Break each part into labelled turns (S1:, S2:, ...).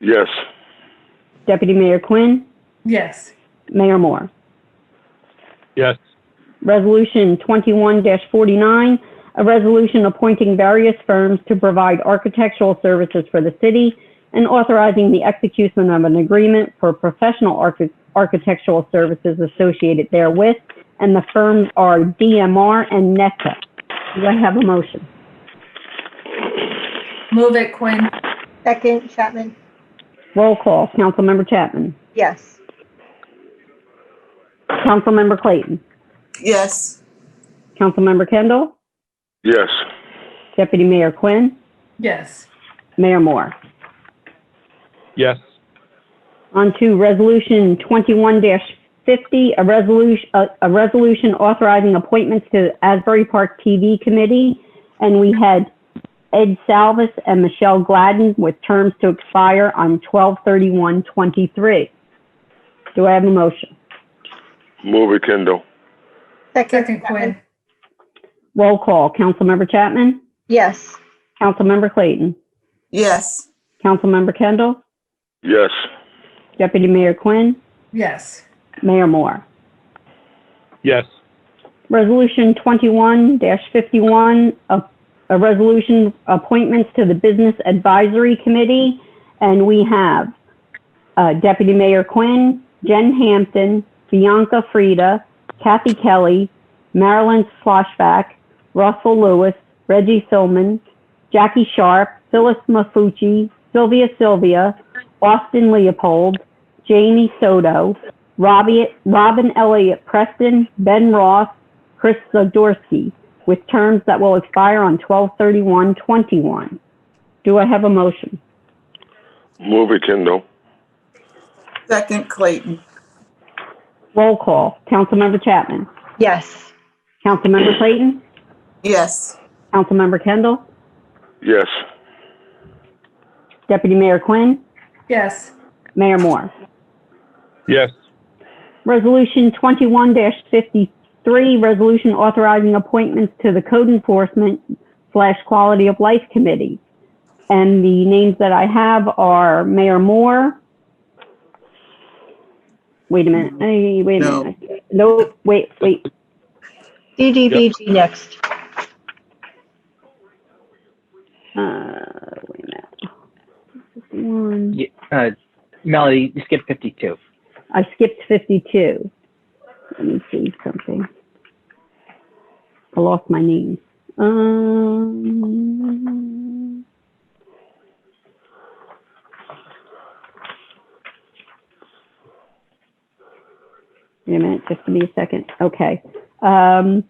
S1: Yes.
S2: Deputy Mayor Quinn,
S3: Yes.
S2: Mayor Moore.
S4: Yes.
S2: Resolution 21-49, a resolution appointing various firms to provide architectural services for the city and authorizing the execution of an agreement for professional archi- architectural services associated therewith, and the firms are DMR and NECA. Do I have a motion?
S3: Move it Quinn.
S5: Second, Chapman.
S2: Roll call. Councilmember Chapman.
S5: Yes.
S2: Councilmember Clayton.
S6: yes,
S2: Councilmember Kendall.
S1: Yes.
S2: Deputy Mayor Quinn.
S3: Yes.
S2: Mayor Moore.
S4: Yes.
S2: On to Resolution 21-50, a resolution, a a resolution authorizing appointments to Asbury Park TV Committee. And we had Ed Salvis and Michelle Gladden with terms to expire on 12/31/23. Do I have a motion?
S1: Move it, Kendall.
S3: Second Quinn.
S2: Roll call. Councilmember Chapman?
S5: Yes.
S2: Councilmember Clayton?
S6: yes,
S2: Councilmember Kendall?
S1: Yes.
S2: Deputy Mayor Quinn?
S3: Yes.
S2: Mayor Moore?
S4: Yes.
S2: Resolution 21-51, a a resolution appointments to the Business Advisory Committee, and we have uh, Deputy Mayor Quinn, Jen Hampton, Bianca Frida, Kathy Kelly, Marilyn Sloshback, Russell Lewis, Reggie Silman, Jackie Sharp, Phyllis Mafucci, Sylvia Sylvia, Austin Leopold, Jamie Soto, Robbie, Robin Elliott Preston, Ben Ross, Chris Zdorsky, with terms that will expire on 12/31/21. Do I have a motion?
S1: Move it, Kendall.
S6: second Clayton,
S2: Roll call. Councilmember Chapman.
S5: Yes.
S2: Councilmember Clayton.
S6: yes,
S2: Councilmember Kendall.
S1: Yes.
S2: Deputy Mayor Quinn.
S3: Yes.
S2: Mayor Moore.
S4: Yes.
S2: Resolution 21-53, resolution authorizing appointments to the Code Enforcement slash Quality of Life Committee. And the names that I have are Mayor Moore. Wait a minute, Hey, wait a
S6: No.
S2: minute. No, wait, wait,
S5: DDBG next.
S2: uh, wait a minute. One,
S7: Ye- uh, Melody, you skipped 52.
S2: I skipped 52. Let me see something. I lost my name. Um, wait a minute, just give me a second. Okay. Um,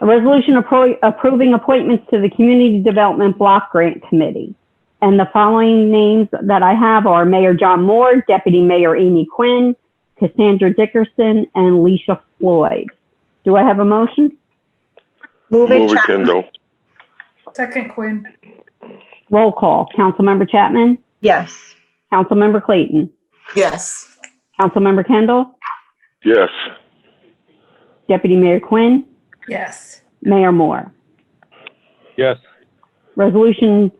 S2: a resolution appro- approving appointments to the Community Development Block Grant Committee. And the following names that I have are Mayor John Moore, Deputy Mayor Amy Quinn, Cassandra Dickerson, and Leisha Floyd. Do I have a motion?
S5: Move it,
S1: Move it,
S5: Chapman.
S1: Kendall.
S3: Second Quinn.
S2: Roll call. Councilmember Chapman?
S5: Yes.
S2: Councilmember Clayton?
S6: yes,
S2: Councilmember Kendall?
S1: Yes.
S2: Deputy Mayor Quinn?
S3: Yes.
S2: Mayor Moore?
S4: Yes.
S2: Resolution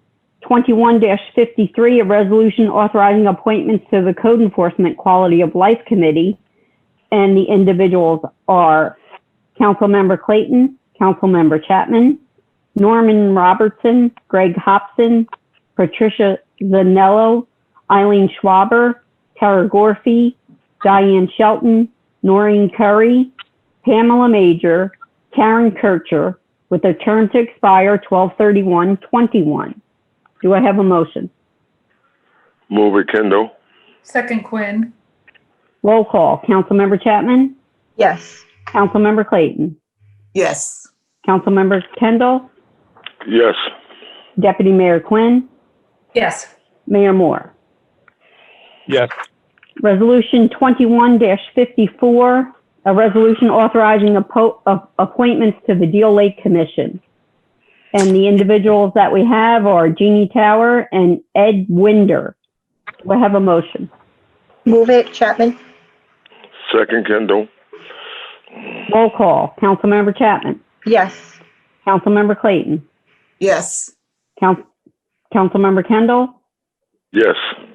S2: 21-53, a resolution authorizing appointments to the Code Enforcement Quality of Life Committee. And the individuals are Councilmember Clayton, Councilmember Chapman, Norman Robertson, Greg Hobson, Patricia Zanello, Eileen Schwaber, Tara Gorfie, Diane Shelton, Noreen Curry, Pamela Major, Karen Kircher, with a term to expire 12/31/21. Do I have a motion?
S1: Move it, Kendall.
S3: Second Quinn.
S2: Roll call. Councilmember Chapman?
S5: Yes.
S2: Councilmember Clayton?
S6: yes,
S2: Councilmember Kendall?
S1: Yes.
S2: Deputy Mayor Quinn?
S3: Yes.
S2: Mayor Moore?
S4: Yes.
S2: Resolution 21-54, a resolution authorizing appo- a- appointments to the Deal Lake Commission. And the individuals that we have are Jeannie Tower and Ed Winder. Do I have a motion?
S5: Move it, Chapman.
S1: Second, Kendall.
S2: Roll call. Councilmember Chapman?
S5: Yes.
S2: Councilmember Clayton.
S6: yes,
S2: Council, Councilmember Kendall.
S1: Yes.